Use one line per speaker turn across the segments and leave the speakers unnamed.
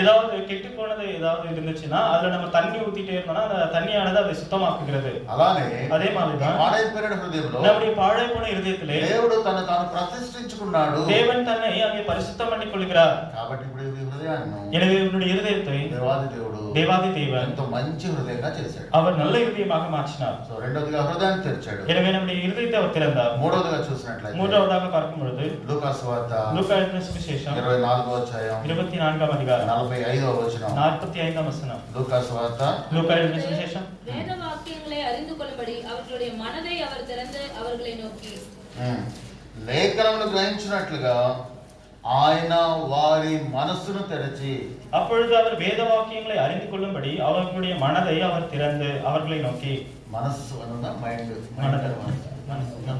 ஏதாவது கெட்டு போனது ஏதாவது இருந்துச்சுன்னா அதுல நம்ம தண்ணி ஊத்திட்டே இருந்தோம்னா அந்த தண்ணியானது அதை சுத்தமாக்குகிறது
అలానే
అదే మాదిరిగా
ఈ పాడైపోయిన హృదయంలో
நம்முடைய పాడై போன இதயத்திலே
దేవుడు తను తాను ప్రతిష్ఠించుకున్నాడు
தேவன் தன்னை அங்கே பரிசுத்தம் பண்ணிக் கொள்கிறார்
కాబట్టి ఇప్పుడు ఈ హృదయాన్ని
எனவே உன்னுடைய இருதயத்தை
దేవాది దేవుడు
தேவாதி தேவன்
ఎంతో మంచి హృదయంగా చేశాడు
அவர் நல்ல இருதயமாக மாற்றினார்
సో రెండోదిగా హృదయాన్ని తెరిచాడు
எனவே நம்முடைய இருதயத்தை அவர் திறந்தார்
మూడోదిగా చూసినట్లయితే
மூன்றாவதாக பார்க்கும் பொழுது
లూకాసు వార్త
லூக்கா எழுதின சுவிசேஷம்
ఇరవై నాలుగో అధ్యాయం
இருபத்தி நான்காம் அதிகாரம்
నలభై ఐదో వచనం
நாற்பத்தி ஐந்தாம் வசனம்
లూకాసు వార్త
லூக்கா எழுதின சுவிசேஷம்
வேத வாக்கியங்களை அறிந்து கொள்ளும்படி அவர்களுடைய மனதை அவர் திறந்து அவர்களை நோக்கி
ఉమ్, లేఖనమును గ్రహించినట్లుగా ఆయన వారి మనస్సును తెరచి
அப்பொழுது அவர் வேத வாக்கியங்களை அறிந்து கொள்ளும்படி அவர்களுடைய மனதை அவர் திறந்து அவர்களை நோக்கி
మనస్సు అనున్న మైండ్
மனதை
మైండ్
மனதை.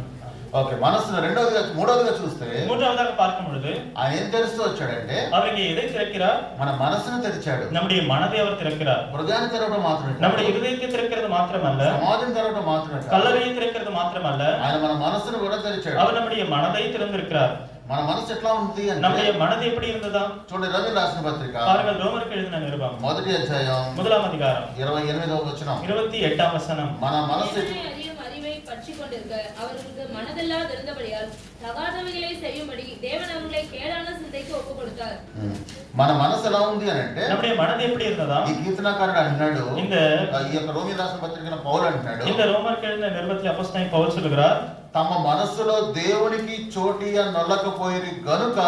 ఓకే మనస్సు రెండోదిగా మూడోదిగా చూస్తే
மூன்றாவதாக பார்க்கும் பொழுது
ఆయన ఏం తెరుస్తూ వచ్చాడంటే
அவர் இங்கே எதை திறக்கிறார்
మన మనస్సును తెరిచాడు
நம்முடைய మనదే அவர் తిరక్கிறார்
మృగాన్ని తెరవడం మాత్రమే కాదు.
நம்முடைய இருதயத்தை திறக்கிறது மாத்திரமல்ல
సమాధిని తెరవడం మాత్రమే కాదు.
கல்லறையை திறக்கிறது மாத்திரமல்ல
ఆయన మన మనస్సును కూడా తెరిచాడు
அவர் நம்முடைய மனதை திறந்திருக்கிறார்
మన మనస్సు ఎట్లా ఉంది అంటే
நம்முடைய மனது எப்படி இருந்ததா
చూడండి రవి రాసిన పత్రిక
பாருங்கள் ரோமருக்கு எழுதின நிருபம்
మొదటి అధ్యాయం
முதலாம் அதிகாரம்
ఇరవై ఎనిమిదవ వచనం
இருபத்தி எட்டாம் வசனம்
మన మనస్సు
தேவனை அறியும் அறிவை பற்றி கொண்டிருக்க அவர்களுக்கு மனதெல்லாம் திறந்தபடியால் தகாதவைகளை செய்யும்படி தேவன் அவர்களை கேடான சிந்தைக்கு ஒப்பு கொடுத்தார்
ఉమ్, మన మనసు ఎలా ఉంది అని అంటే
நம்முடைய மனது எப்படி இருந்ததா
ఈ కీర్తనకారుడు అంటున్నాడు
இந்த
ఆ, ఈ యొక్క రోమి రాసిన పత్రికన పౌలు అంటున్నాడు
இந்த ரோமருக்கு எழுதின நிருபத்தில் அப்போஸ்தலன் பவுல் சொல்லுகிறார்
తమ మనస్సులో దేవునికి చోటిగా నొల్లకపోయి గనుక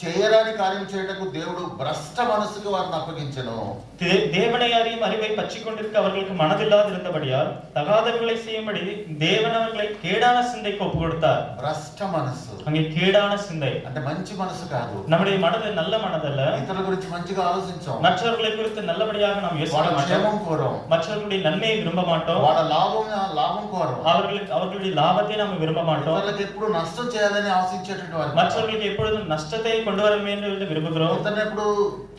చేయరాని కార్యం చేయటకు దేవుడు భ్రష్ట మనస్సుకు వారిని అప్పగించను
தே- தேவனை அறியும் அறிவை பற்றி கொண்டிருக்க அவர்களுக்கு மனதில்லாது இருந்தபடியால் தகாதவர்களை செய்யும்படி தேவன் அவர்களை கேடான சிந்தைக்கு ஒப்பு கொடுத்தார்
భ్రష్ట మనస్సు
அங்கே கேடான சிந்தை
అంటే మంచి మనసు కాదు
நம்முடைய மனது நல்ல మనదல்ல
ఇతరుల గురించి మంచిగా ఆలోచించాం
மற்றவர்களை குறித்து நல்லபடியாக நாம்
వాళ్ళ
யோசிக்க மாட்டோம்
క్షేమం కోరం
மற்றவர்களுடைய நன்மையை விரும்ப மாட்டோம்
వాళ్ళ లాభం లాభం కోరం
அவர்களுக்கு அவர்களுடைய லாபத்தை நாம் விரும்ப மாட்டோம்
ఇతరులకు ఎప్పుడు నష్టం చేయాలని ఆశించేటువంటి వారు
மற்றவர்களுக்கு எப்பொழுதும் நஷ்டத்தை கொண்டு வர வேண்டும் என்று విరుపుகிறோம்
ఇతరులను ఎప్పుడు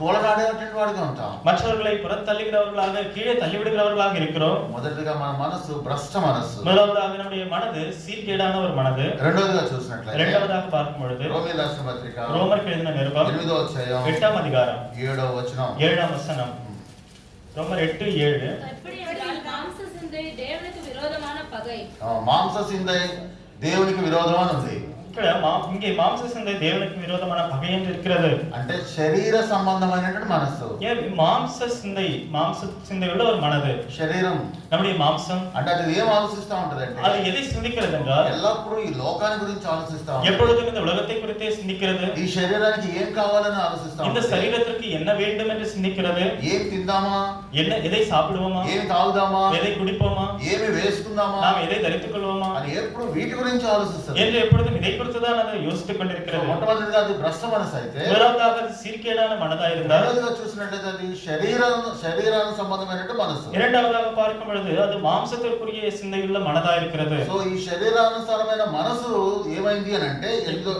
తోలగాడేటువంటి వాడిగా ఉంటాం
மற்றவர்களை புறத்தள்ளுகிறவர்களாக கீழே தள்ளிவிடுகிறவர்களாக இருக்கிறோம்
మొదటిగా మన మనసు భ్రష్ట మనస్సు
முதலாவதாக நம்முடைய மனது சீர்கேடான ஒரு மனது
రెండోదిగా చూసినట్లయితే
இரண்டாவதாக பார்க்கும் பொழுது
రోమి రాష్ట్ర పత్రిక
ரோமருக்கு எழுதின நிருபம்
ఎనిమిదో అధ్యాయం
எட்டாம் அதிகாரம்
ఏడో వచనం
ஏழாம் வசனம் ரோமர் எட்டு ஏழு
எப்படி என்றால் மாம்ச சிந்தை தேவனுக்கு விரோதமான பகை
ఆ, మాంస సింధై దేవునికి విరోధం అని ఉంది
ఇక్కడ மா- இங்கே மாம்ச சிந்தை தேவனுக்கு விரோதமான பகை என்று இருக்கிறது
అంటే శరీర సంబంధమైనటువంటి మనస్సు
ஏன் மாம்ச சிந்தை மாம்ச சிந்தையுள்ள ஒரு மனது
శరీరం
நம்முடைய மாம்சம்
అంటే అది ఏం ఆలోచిస్తా ఉంటదంటే
அது ఎதை சிந்திக்கிறது என்றால்
ఎల్లప్పుడూ ఈ లోకాన్ని గురించి ఆలోచిస్తా ఉంటుంది
எப்பொழுதும் இந்த உலகத்தை குறித்தே சிந்திக்கிறது
ఈ శరీరానికి ఏం కావాలని ఆలోచిస్తా
இந்த
ఉంటుంది
சரீரத்திற்கு என்ன வேண்டும் என்று சிந்திக்கிறது
ఏం తిందామా
என்ன எதை சாப்பிடுவோமா
ఏం తాగుదామా
எதை குடிப்போமா
ఏమి వేసుకుందామా
நாம் எதை தரித்துக் கொள்வோமா
అని ఎప్పుడు వీటి గురించి ఆలోచిస్తారు
என்று எப்பொழுதும் இதை குறித்துதான் அதை யோசித்துக் கொண்டிருக்கிறது
మొట్టమొదటిగా అది భ్రష్ట మనసు అయితే
முதலாவதாக அது சீர்கேடான மனதா இருந்தால்
రెండోదిగా చూసినట్లయితే అది శరీరం శరీరానికి సంబంధమైనటువంటి మనసు
இரண்டாவதாக பார்க்கும் பொழுது அது மாம்சத்திற்குரிய சிந்தையுள்ள மனதா இருக்கிறது
సో ఈ శరీరానుసారమైన మనసు ఏమైంది అని అంటే ఎనిమిదో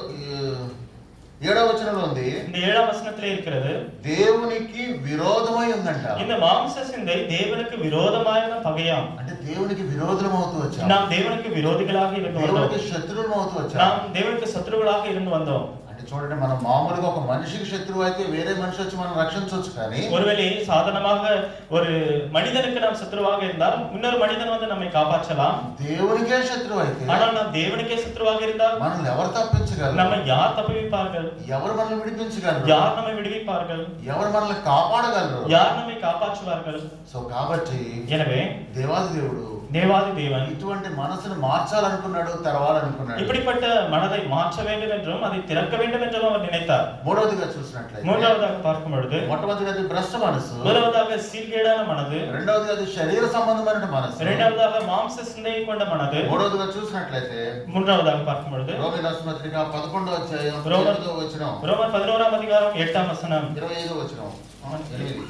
ఏడవ వచనంలో ఉంది
இந்த ஏழாம் வசனத்திலே இருக்கிறது
దేవునికి విరోధమై ఉందంట
இந்த மாம்ச சிந்தை தேவனுக்கு விரோதமான பகையாம்
అంటే దేవునికి విరోధం అవుతూ వచ్చాం
நாம் தேவனுக்கு விரோதிகளாக இருந்து வந்தோம்
దేవునికి శత్రువులం అవుతూ వచ్చాం
நாம் தேவனுக்கு சத்துருக்களாக இருந்து வந்தோம்
అంటే చూడండి మనం మామూలుగా ఒక మనిషికి శత్రువు అయితే వేరే మనిషి వచ్చి మనం రక్షించవచ్చు కానీ
ஒருவேளை சாதாரணமாக ஒரு మనిதனுக்கு நாம் சத்துருவாக இருந்தால் இன்னொரு மனிதன் வந்து நம்மை காப்பாற்றலாம்
దేవునికే శత్రువు అయితే
ஆனால் நாம் தேவனுக்கே சத்துருவாக இருந்தால்
మనల్ని ఎవరు తప్పించగలరు
நம்மை யார் தப்புவிப்பார்கள்
ఎవరు మనల్ని విడిపించగలరు
யார் நம்மை விடுவிப்பார்கள்
ఎవరు మనల్ని కాపాడగలరు
யார் நம்மை காப்பாற்றுவார்கள்
సో కాబట్టి
எனவே
దేవాది దేవుడు
தேவாதி தேவன்
ఇటువంటి మనసును మార్చాలనుకున్నాడు తెరవాలనుకున్నాడు
இப்படிப்பட்ட மனதை மாற்ற வேண்டும் என்றும் அதை திறக்க வேண்டும் என்றும் அவர் நினைத்தார்
మూడవదిగా చూసినట్లయితే
மூன்றாவதாக பார்க்கும் பொழுது
మొట్టమొదటిది అది భ్రష్ట మనసు
முதலாவதாக சீர்கேடான மனது
రెండవది అది శరీర సంబంధమైన మనసు
இரண்டாவதாக மாம்ச சிந்தையை கொண்ட மனது
మూడవదిగా చూసినట్లయితే
மூன்றாவதாக பார்க்கும் பொழுது
రోమి రాష్ట్రపత్రిక పదకొండో అధ్యాయం
రోమ-
ఎనిమిదో వచనం
ரோமர் பதினோராம் அதிகாரம் எட்டாம் வசனம்
ఇరవై ఐదో వచనం ఎనిమిది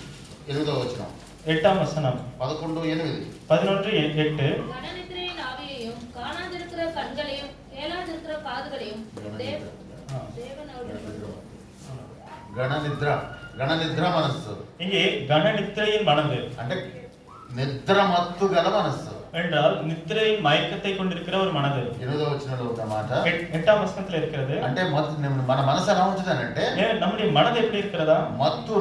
ఎనిమిదో వచనం
எட்டாம் வசனம்
పదకొండు ఎనిమిది
பதினொன்று எ- எட்டு
கனநித்திரையின் ஆவியையும் காணாதிருக்கிற கண்களையும் கேளாதிருக்கிற காதுகளையும் தேவ- தேவன் அவர்களுக்கு
గణ నిద్ర గణ నిద్ర మనస్సు
இங்கே கன நித்திரையின் மனது
అంటే నిద్ర మత్తు గల మనస్సు
என்றால் நித்திரையின் மயக்கத்தை கொண்டிருக்கிற ஒரு மனது
ఎనిమిదో వచనంలో ఉన్న మాట
எட்- எட்டாம் வசனத்துல இருக்கிறது
అంటే మత్తు మన మనసు ఎలా ఉంటుందనంటే
ஏன் நம்முடைய மனது எப்படி இருக்கிறதா
మత్తు